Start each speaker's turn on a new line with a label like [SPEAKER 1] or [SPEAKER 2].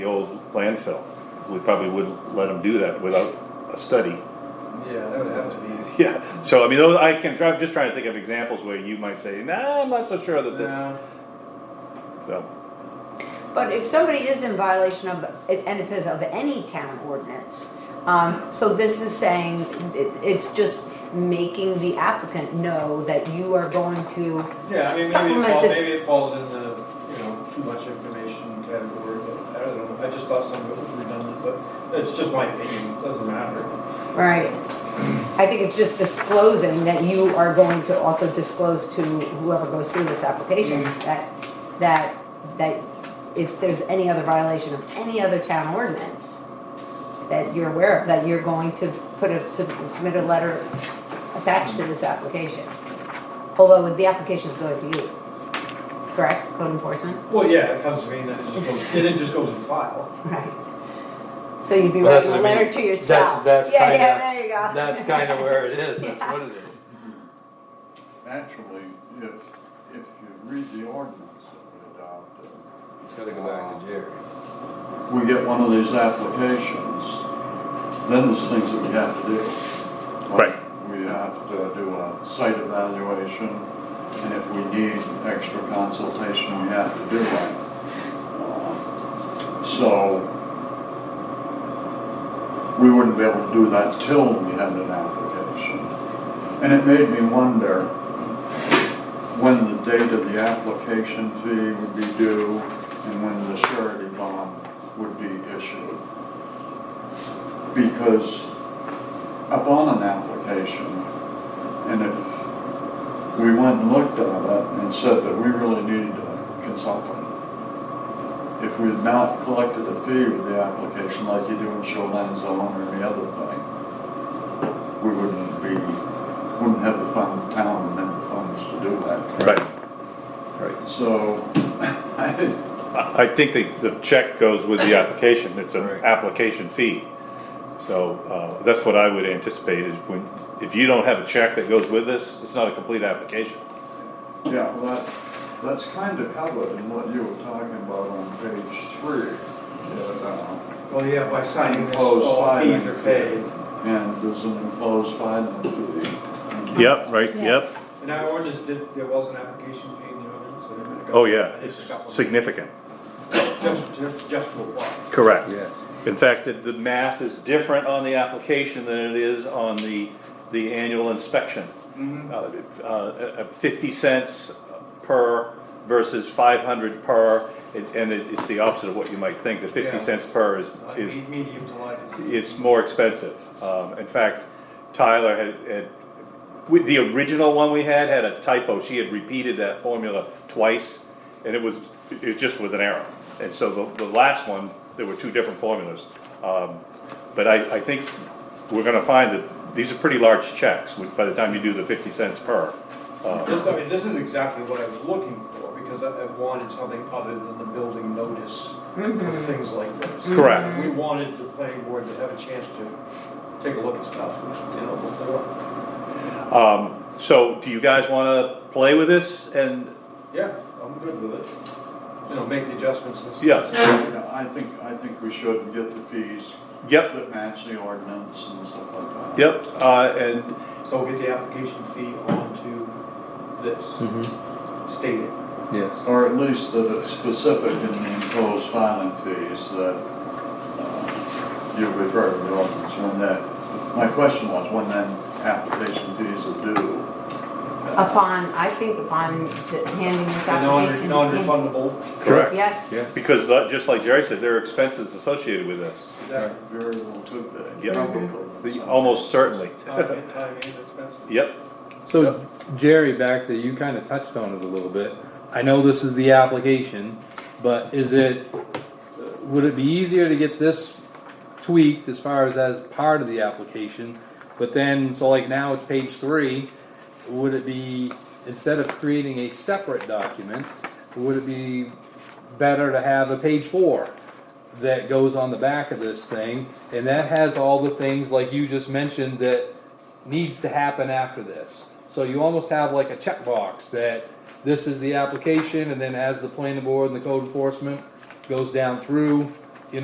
[SPEAKER 1] the old landfill. We probably wouldn't let them do that without a study.
[SPEAKER 2] Yeah, that would have to be.
[SPEAKER 1] Yeah, so I mean, those, I can, try- I'm just trying to think of examples where you might say, nah, I'm not so sure that, that,
[SPEAKER 2] No,
[SPEAKER 1] so,
[SPEAKER 3] But if somebody is in violation of, and it says of any town ordinance, um, so this is saying, it, it's just making the applicant know that you are going to,
[SPEAKER 2] yeah, I mean, maybe it
[SPEAKER 3] Supplement
[SPEAKER 2] falls,
[SPEAKER 3] this-
[SPEAKER 2] maybe it falls in the, you know, too much information category, but I don't know, I just thought some of it was redundant, but it's just my opinion, it doesn't matter.
[SPEAKER 3] right? I think it's just disclosing that you are going to also disclose to whoever goes through this application
[SPEAKER 4] Mm-hmm.
[SPEAKER 2] Mhm.
[SPEAKER 3] that, that, that if there's any other violation of any other town ordinance that you're aware of, that you're going to put a, submit a letter attached to this application. Although the application's going to you, correct, code enforcement?
[SPEAKER 2] Well, yeah, it comes to me and then it just goes, and it just goes in file.
[SPEAKER 3] Right. So you'd be
[SPEAKER 4] Well, that's
[SPEAKER 3] writing a
[SPEAKER 4] what I
[SPEAKER 3] letter
[SPEAKER 4] mean.
[SPEAKER 3] to
[SPEAKER 4] That's-
[SPEAKER 3] yourself.
[SPEAKER 4] that's
[SPEAKER 3] Yeah,
[SPEAKER 4] kinda-
[SPEAKER 3] yeah, there you go.
[SPEAKER 4] That's kind of where it is, that's what it is.
[SPEAKER 5] Naturally, if, if you read the ordinance that we adopted,
[SPEAKER 6] It's gotta go back to Jerry.
[SPEAKER 5] we get one of these applications, then there's things that we have to do. Like, We have to do a site evaluation, and if we need extra consultation, we have to do that. Uh, So, we wouldn't be able to do that till we had an application. And it made me wonder when the date of the application fee would be due and when the surety bond would be issued. Because upon an application, and if we went and looked at it and said that we really needed a consultant, if we had not collected a fee with the application like you do in shoreline zone or any other thing, we wouldn't be, wouldn't have the fund, the town and then the funds to do that.
[SPEAKER 1] right. Right.
[SPEAKER 5] So, I,
[SPEAKER 1] I, I think the, the check goes with the application, it's an
[SPEAKER 6] Right.
[SPEAKER 1] application fee. So, uh, that's what I would anticipate is when, if you don't have a check that goes with this, it's not a complete application.
[SPEAKER 5] Yeah, well, that, that's kind of covered in what you were talking about on page three. that, uh,
[SPEAKER 2] Well, yeah, by signing this,
[SPEAKER 5] Enclosed
[SPEAKER 2] all fees
[SPEAKER 5] filing.
[SPEAKER 2] are paid.
[SPEAKER 5] And there's an enclosed filing fee.
[SPEAKER 1] Yep, right,
[SPEAKER 3] Yeah.
[SPEAKER 1] yep,
[SPEAKER 2] And our ordinance did, there was an application fee in the ordinance. and it got-
[SPEAKER 1] oh yeah,
[SPEAKER 2] and
[SPEAKER 1] it's
[SPEAKER 2] it's a couple-
[SPEAKER 1] significant,
[SPEAKER 2] Just, just, just to apply.
[SPEAKER 1] correct.
[SPEAKER 6] Yes.
[SPEAKER 1] In fact, the, the math is different on the application than it is on the, the annual inspection. Uh, uh, fifty cents per versus five hundred per, and- and it, it's the opposite of what you might think, the
[SPEAKER 2] Yeah.
[SPEAKER 1] fifty cents per is,
[SPEAKER 2] Like
[SPEAKER 1] is
[SPEAKER 2] me- medium to light.
[SPEAKER 1] it's more expensive. Um, in fact, Tyler had, had, with the original one we had, had a typo, she had repeated that formula twice, and it was, it just was an error. And so the, the last one, there were two different formulas. Um, but I, I think we're gonna find that these are pretty large checks, when- by the time you do the fifty cents per. Uh,
[SPEAKER 2] This, I mean, this is exactly what I was looking for, because I, I wanted something other than the building notice for things like this.
[SPEAKER 1] Correct.
[SPEAKER 2] We wanted the planning board to have a chance to take a look at stuff, you know, before.
[SPEAKER 1] Um, so do you guys wanna play with this and,
[SPEAKER 2] Yeah, I'm good with it. You know, make the adjustments and stuff.
[SPEAKER 1] yes,
[SPEAKER 5] Yeah, I think, I think we should and get the fees
[SPEAKER 1] yep,
[SPEAKER 5] that match the ordinance and stuff like that.
[SPEAKER 1] yep, uh, and
[SPEAKER 2] So we'll get the application fee onto this,
[SPEAKER 1] Mm-hmm.
[SPEAKER 2] state it.
[SPEAKER 6] Yes.
[SPEAKER 5] Or at least that it's specific in the enclosed filing fees that uh, you refer to the ordinance when that, my question was, when then application fees are due?
[SPEAKER 3] Upon, I think upon the- handing this
[SPEAKER 2] The non-
[SPEAKER 3] application.
[SPEAKER 2] non-refundable.
[SPEAKER 1] Correct.
[SPEAKER 3] Yes.
[SPEAKER 6] Yeah.
[SPEAKER 1] Because uh, just like Jerry said, there are expenses associated with this,
[SPEAKER 2] Exactly.
[SPEAKER 5] Very well could be.
[SPEAKER 1] Yeah.
[SPEAKER 5] Probably.
[SPEAKER 1] almost certainly.
[SPEAKER 2] Time and time and expenses.
[SPEAKER 1] Yep,
[SPEAKER 4] So Jerry, back to you kinda touched on it a little bit. I know this is the application, but is it, would it be easier to get this tweaked as far as as part of the application? But then, so like now it's page three, would it be, instead of creating a separate document, would it be better to have a page four that goes on the back of this thing? And that has all the things like you just mentioned that needs to happen after this. So you almost have like a checkbox that this is the application and then as the planning board and the code enforcement goes down through,